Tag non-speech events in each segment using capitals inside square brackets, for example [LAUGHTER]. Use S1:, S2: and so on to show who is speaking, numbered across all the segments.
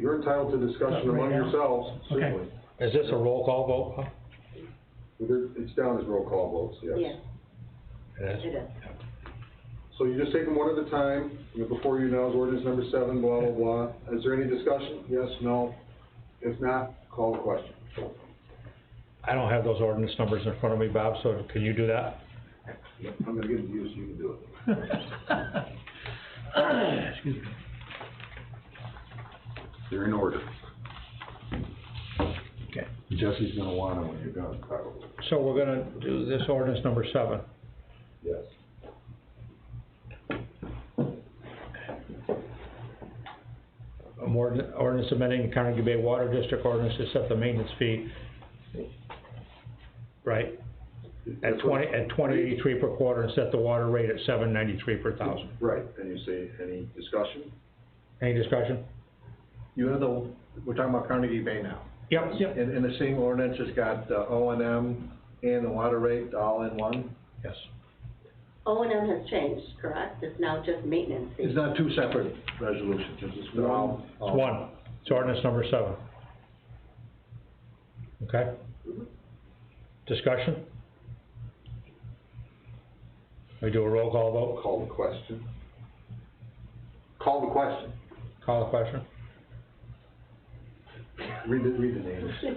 S1: you're entitled to discussion
S2: Right
S1: among
S2: now?
S1: yourselves,
S2: Okay.
S1: certainly.
S3: Is this a roll call vote? huh?
S1: There- It's down as roll call votes, yes.
S4: Yeah,
S3: It is.
S4: it is.
S1: So you just take them one at a time, you know, before you now is ordinance number seven, blah, blah, blah. Is there any discussion? Yes, no? If not, call the question.
S3: I don't have those ordinance numbers in front of me, Bob, so can you do that?
S1: I'm gonna give it to you so you can do it.
S2: [COUGHS] Excuse me.
S1: They're in order.
S2: Okay.
S1: Jesse's gonna want them when you're done, probably.
S3: So we're gonna do this ordinance number seven.
S1: Yes.
S3: Um, ordin- Ordinance amending Carnegie Bay Water District ordinance to set the maintenance fee, right, at
S1: That's what-
S3: twenty, at twenty eighty-three per quarter and set the water rate at seven ninety-three per thousand.
S1: Right, and you say, any discussion?
S3: Any discussion?
S5: You have the, we're talking about Carnegie Bay now.
S3: Yep, yep,
S5: And, and the same ordinance has got the O and M and the water rate all in one?
S3: yes.
S4: O and M has changed, correct? It's now just maintenance fee.
S5: [LAUGHS] It's not two separate resolutions, it's just they're all.
S3: It's one, it's ordinance number seven. Okay? Discussion? We do a roll call vote,
S1: Call the question. Call the question.
S3: call the question?
S1: Read the, read the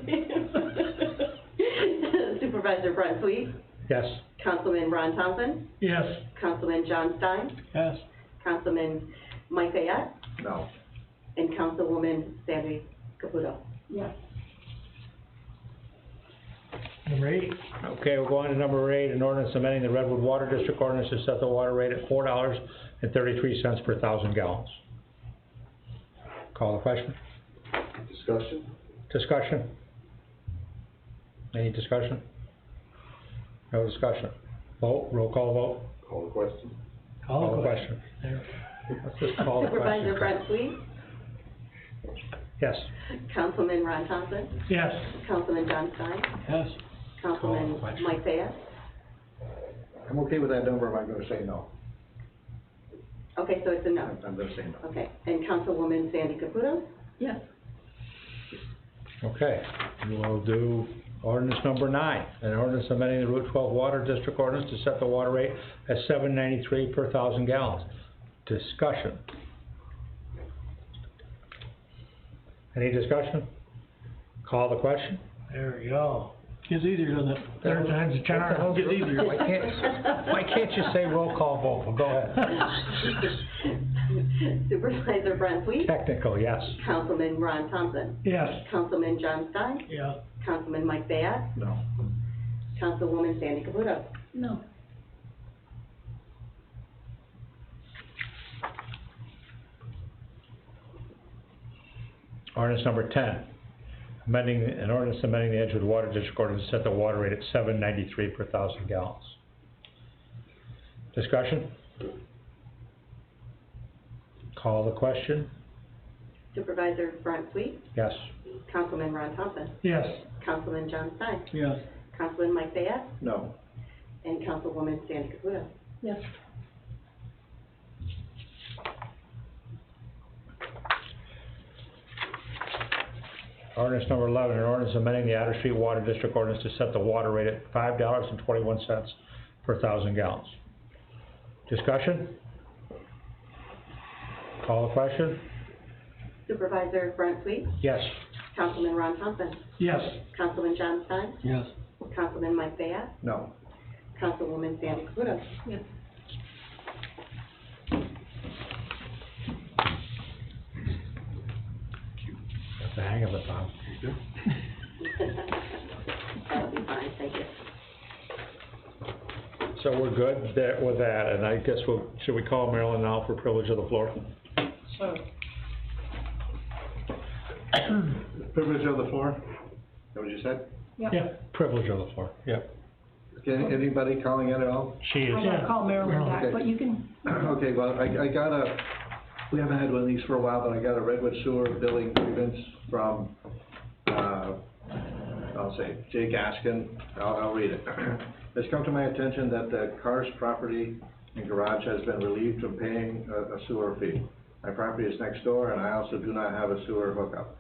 S1: names.
S4: Supervisor Brent Sweet,
S3: Yes?
S4: Councilman Ron Thompson,
S2: Yes,
S4: Councilman John Stein,
S2: yes.
S4: Councilman Mike Ayat,
S5: No.
S4: and Councilwoman Sandy Caputo.
S2: Number eight,
S3: Okay, we'll go on to number eight, an ordinance amending the Redwood Water District ordinance to set the water rate at four dollars and thirty-three cents per thousand gallons. Call the question,
S1: Discussion?
S3: discussion? Any discussion? No discussion, vote, roll call vote,
S1: Call the question.
S2: call
S3: call
S2: the
S3: the
S2: question.
S3: question.
S2: There.
S3: Let's just call the
S4: Supervisor
S3: question.
S4: Brent Sweet,
S3: Yes,
S4: Councilman Ron Thompson,
S2: Yes,
S4: Councilman John Stein,
S2: yes.
S4: Councilman
S3: question.
S4: Mike Ayat.
S5: I'm okay with that number, am I gonna say no?
S4: Okay, so it's a no.
S5: I'm, I'm gonna say no.
S4: Okay, and Councilwoman Sandy Caputo? [LAUGHS] Yes.
S3: okay, we'll do ordinance number nine, an ordinance amending the Route twelve Water District ordinance to set the water rate at seven ninety-three per thousand gallons. Discussion. Any discussion? Call the question?
S2: There we go. Gets easier, doesn't it? Third time's a charm. Gets easier.
S3: Why can't, why can't you say roll call vote, go ahead.
S2: [LAUGHS]
S4: Supervisor Brent Sweet,
S3: Technical, yes,
S4: Councilman Ron Thompson,
S2: Yes,
S4: Councilman John Stein,
S2: yeah.
S4: Councilman Mike Bayad,
S5: No.
S4: Councilwoman Sandy Caputo.
S6: No.
S3: ordinance number ten, amending, an ordinance amending the Edgewood Water District ordinance to set the water rate at seven ninety-three per thousand gallons. Discussion? Call the question,
S4: Supervisor Brent Sweet,
S3: yes,
S4: Councilman Ron Thompson,
S2: Yes,
S4: Councilman John Stein,
S2: yes.
S4: Councilman Mike Bayad,
S5: No.
S4: and Councilwoman Sandy Caputo.
S6: Yes.
S3: ordinance number eleven, an ordinance amending the Otter Street Water District ordinance to set the water rate at five dollars and twenty-one cents per thousand gallons. Discussion? Call the question,
S4: Supervisor Brent Sweet,
S3: yes,
S4: Councilman Ron Thompson,
S2: Yes.
S4: Councilman John Stein,
S2: Yes.
S4: Councilman Mike Bayad,
S5: No.
S4: Councilwoman Sandy Caputo.
S6: Yes.
S3: Got the hang of it, Bob.
S4: That'll be fine, thank you.
S3: So we're good that, with that, and I guess we'll, should we call Marilyn now for privilege of the floor?
S5: Privilege of the floor? Is that what you said?
S3: Yeah, privilege of the floor, yeah.
S5: Okay, anybody calling in at all?
S3: She is,
S6: I'm gonna call Marilyn back,
S5: Okay.
S6: but you can,
S5: [CLEARS THROAT] Okay, well, I, I got a, we haven't had one of these for a while, but I got a Redwood Sewer billing grievance from, uh, I'll say Jay Gaskin. I'll, I'll read it. [CLEARS THROAT] It's come to my attention that the Cars property and garage has been relieved from paying a, a sewer fee. My property is next door, and I also do not have a sewer hookup.